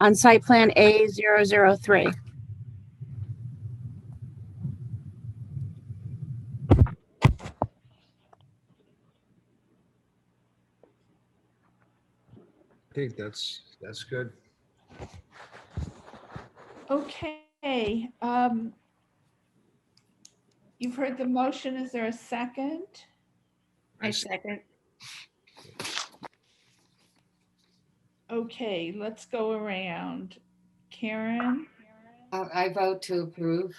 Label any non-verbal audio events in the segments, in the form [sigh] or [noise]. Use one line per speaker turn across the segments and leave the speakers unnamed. on site plan A zero zero three.
I think that's, that's good.
Okay, um, you've heard the motion. Is there a second?
I second.
Okay, let's go around. Karen,
Uh, I vote to approve.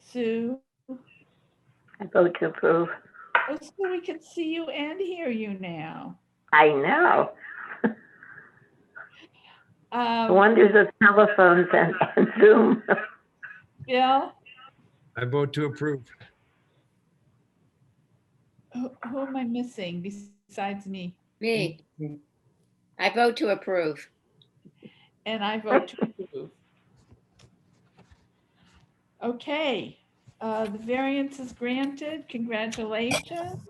Sue,
I vote to approve.
oh, so we can see you and hear you now.
I know. The
Um,
Wonders of telephones and and [laughs] Zoom.
Bill,
I vote to approve.
who, who am I missing besides me?
Me. I vote to approve.
And I vote to approve. Okay, uh, the variance is granted. Congratulations.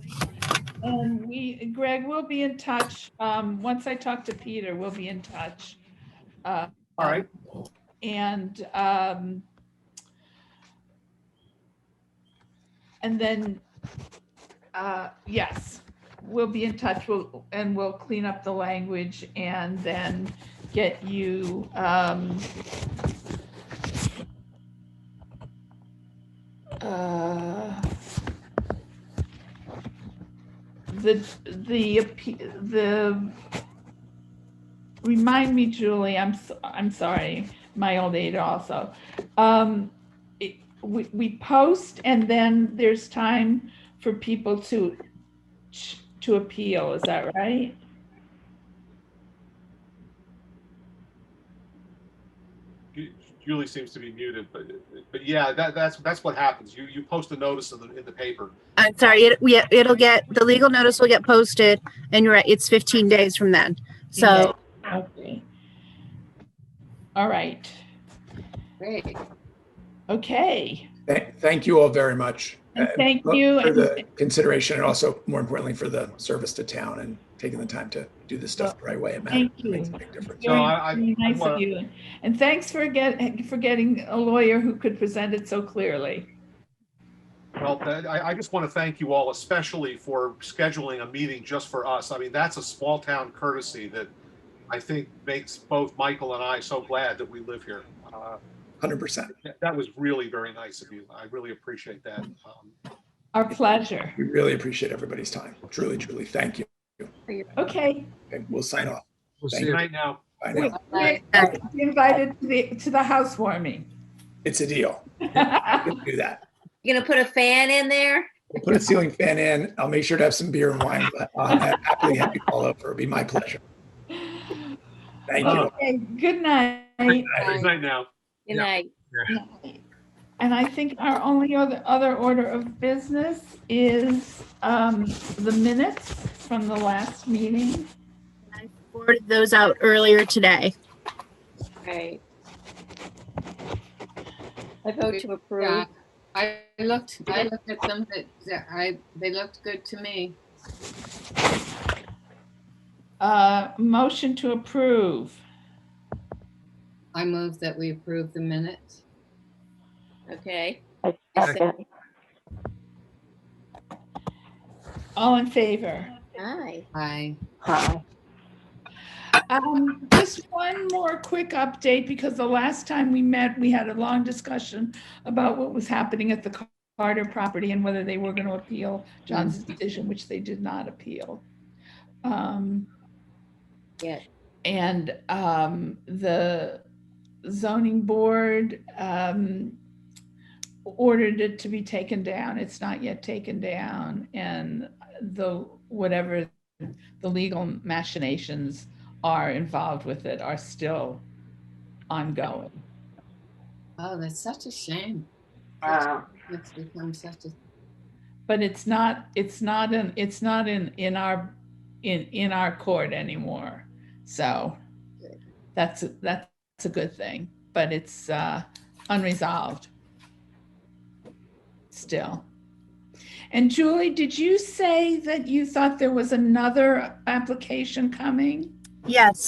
And we, Greg, we'll be in touch. Um, once I talk to Peter, we'll be in touch. All
All right.
And, um, and then, uh, yes, we'll be in touch. We'll, and we'll clean up the language and then get you, um, uh, the, the, appe- the, remind me, Julie, I'm, s- I'm sorry, my old age also. Um, it- we, we post and then there's time for people to, to appeal, is that right?
Julie seems to be muted, but, but yeah, that, that's, that's what happens. You, you post a notice in the, in the paper.
I'm sorry, it, we, it'll get, the legal notice will get posted and you're right, it's fifteen days from then. So,
Okay. All right,
Great.
okay.
Th- Thank you all very much.
And
uh,
thank
for-
you,
For
and-
the consideration and also more importantly for the service to town and taking the time to do this stuff the right way. It matters.
Thank you.
Makes a big difference.
No, I- I-
Very Nice of
wanna-
you. And thanks for get, for getting a lawyer who could present it so clearly.
Well, I, I just want to thank you all, especially for scheduling a meeting just for us. I mean, that's a small town courtesy that I think makes both Michael and I so glad that we live here. Uh,
100%.
that- That was really very nice of you. I really appreciate that. Um,
Our pleasure.
We really appreciate everybody's time. Truly, truly, thank you.
Okay,
Okay, We'll sign off.
We'll
Thank
see
Good
you.
night now.
Bye now.
Bye.
be invited to the, to the housewarming. [laughs]
It's a deal. We
All
can Do that.
You gonna put a fan in there?
We'll Put a ceiling fan in. I'll make sure to have some beer and wine, but I'll have- happily have you all over. It'd be my pleasure. Thank you.
Okay, good night.
Good night now.
Good night.
And I think our only other, other order of business is um, the minutes from the last meeting.
I forwarded those out earlier today.
Right.
I vote to
Yeah.
approve.
I looked, I looked at them, that, that I, they looked good to me.
Uh, Motion to approve.
I move that we approve the minutes.
Okay.
I second.
All in favor?
Aye.
I,
Hi.
Um, just one more quick update, because the last time we met, we had a long discussion about what was happening at the Carter property and whether they were gonna appeal John's decision, which they did not appeal. Um,
Yet.
and, um, the zoning board, um, ordered it to be taken down. It's not yet taken down, and the, whatever the legal machinations are involved with it are still ongoing.
oh, that's such a shame.
Wow.
It's become such a,
But it's not, it's not in, it's not in, in our, in, in our court anymore. So that's, a- that's a good thing, but it's uh, unresolved still. And Julie, did you say that you thought there was another application coming?
Yes.